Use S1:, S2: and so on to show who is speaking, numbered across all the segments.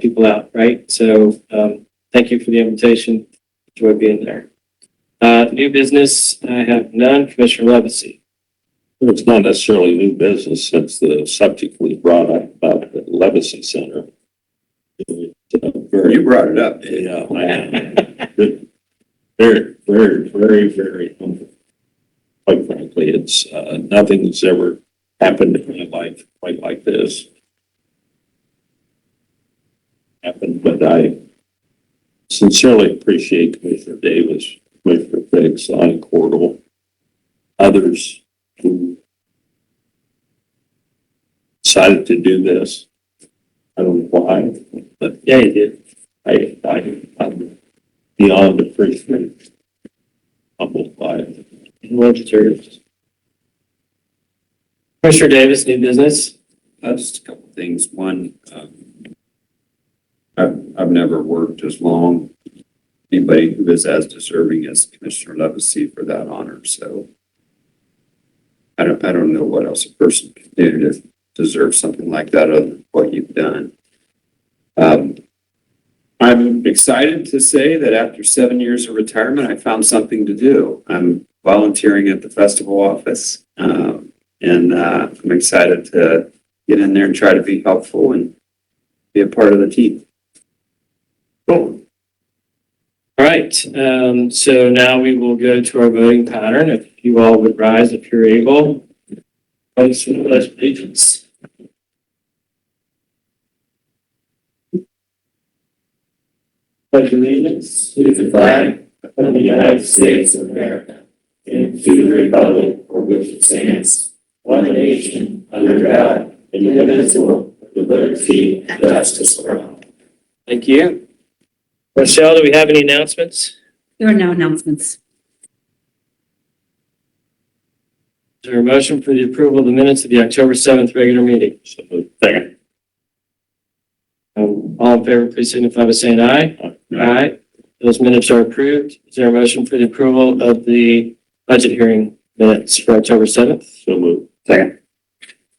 S1: people out, right? So, um, thank you for the invitation. Enjoy being there. Uh, new business, I have none. Commissioner Levesey.
S2: It's not necessarily new business since the subject was brought up about the Levacy Center. It's a
S3: You
S2: Very,
S3: brought it up.
S2: yeah, I- very, very, very, very humble. Quite frankly, it's, uh, nothing that's ever happened in my life quite like this. Happened, but I sincerely appreciate Commissioner Davis, Commissioner Fix, Lonnie Cordell, others who decided to do this. I don't know why, but yeah, it did. I, I, I'm beyond appreciative. Humbled by it.
S1: Well deserved. Commissioner Davis, new business.
S3: Uh, Just a couple of things. One, um, I've, I've never worked as long. Anybody who is as deserving as Commissioner Levesey for that honor, so. I don't, I don't know what else a person can do to deserve something like that other than what you've done. Um, I'm excited to say that after seven years of retirement, I found something to do. I'm volunteering at the festival office. Um, and, uh, I'm excited to get in there and try to be helpful and be a part of the team.
S2: Cool.
S1: All right, um, so now we will go to our voting pattern. If you all would rise if you're able. Folks, with the pledge of allegiance. Pledge allegiance to the flag of the United States of America and to the republic for which it stands, one nation, under God, indivisible, with liberty and justice for all. Thank you. Rochelle, do we have any announcements?
S4: There are no announcements.
S1: Is there a motion for the approval of the minutes of the October 7th regular meeting?
S2: So, second.
S1: Um, All in favor, please signify by saying aye. Aye. Those minutes are approved. Is there a motion for the approval of the budget hearing minutes for October 7th?
S2: So moved.
S3: Second.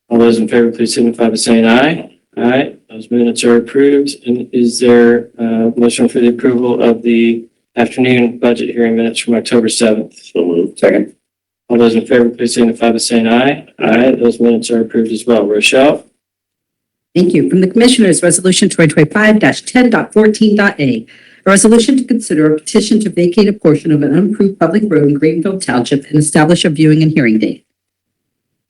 S1: All those in favor, please signify by saying aye. Aye. Those minutes are approved. And is there a motion for the approval of the afternoon budget hearing minutes from October 7th?
S2: So moved.
S3: Second.
S1: All those in favor, please signify by saying aye. Aye. Those minutes are approved as well. Rochelle?
S4: Thank you. From the Commissioners, Resolution 2025-10.14.a. A resolution to consider a petition to vacate a portion of an unapproved public road in Greenville Township and establish a viewing and hearing date.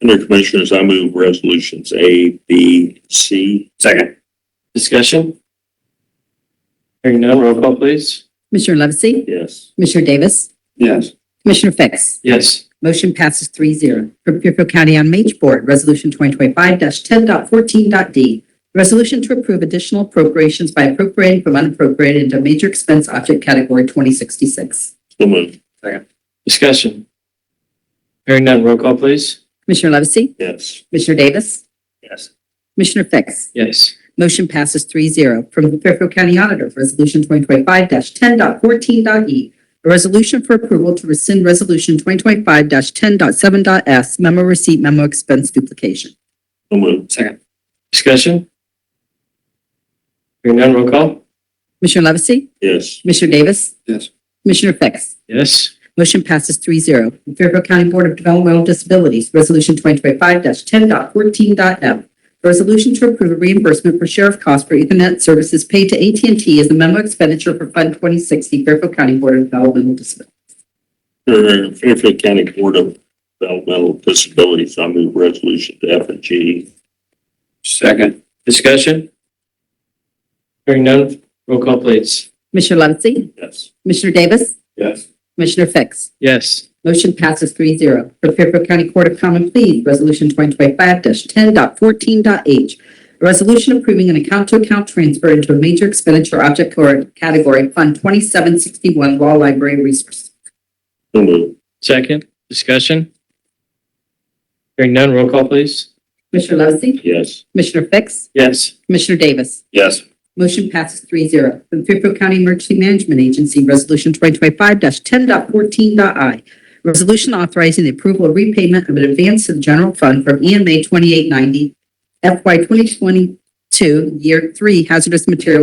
S2: Under Commissioners, I move resolutions A, B, C.
S3: Second.
S1: Discussion? Hearing none, roll call please.
S4: Commissioner Levesey?
S2: Yes.
S4: Commissioner Davis?
S3: Yes.
S4: Commissioner Fix?
S1: Yes.
S4: Motion passes three zero. From Fairfield County MH Board, Resolution 2025-10.14.d. A resolution to approve additional appropriations by appropriating from unappropriated into major expense object category 2066.
S2: So moved.
S1: Discussion? Hearing none, roll call please.
S4: Commissioner Levesey?
S2: Yes.
S4: Commissioner Davis?
S2: Yes.
S4: Commissioner Fix?
S1: Yes.
S4: Motion passes three zero. From the Fairfield County Auditor, Resolution 2025-10.14.e. E. A resolution for approval to rescind Resolution 2025-10.7.s memo receipt memo expense duplication.
S2: So moved.
S3: Second.
S1: Discussion? Hearing none, roll call.
S4: Commissioner Levesey?
S2: Yes.
S4: Commissioner Davis?
S3: Yes.
S4: Commissioner Fix?
S1: Yes.
S4: Motion passes three zero. From Fairfield County Board of Developmental Disabilities, Resolution 2025-10.14.m. A resolution to approve a reimbursement for sheriff costs for Ethernet services paid to at and t as a memo expenditure for Fund 2060 Fairfield County Board of Developmental Disabilities.
S2: Under Fairfield County Board of Developmental Disabilities, I move resolutions F and G.
S3: Second.
S1: Discussion? Hearing none, roll call please.
S4: Commissioner Levesey?
S2: Yes.
S4: Commissioner Davis?
S2: Yes.
S4: Commissioner Fix?
S1: Yes.
S4: Motion passes three zero. For Fairfield County Court of Common Pleas, Resolution 2025-10.14.h. A resolution approving an account-to-account transfer into a major expenditure object or category, Fund 2761 Law Library Resources.
S2: So moved.
S1: Second, discussion? Hearing none, roll call please.
S4: Commissioner Levesey?
S2: Yes.
S4: Commissioner Fix?
S1: Yes.
S4: Commissioner Davis?
S2: Yes.
S4: Motion passes three zero. From Fairfield County Emergency Management Agency, Resolution 2025-10.14.i. Resolution authorizing the approval of repayment of an advance to the general fund from E EMA 2890 FY 2022 Year 3 Hazardous Material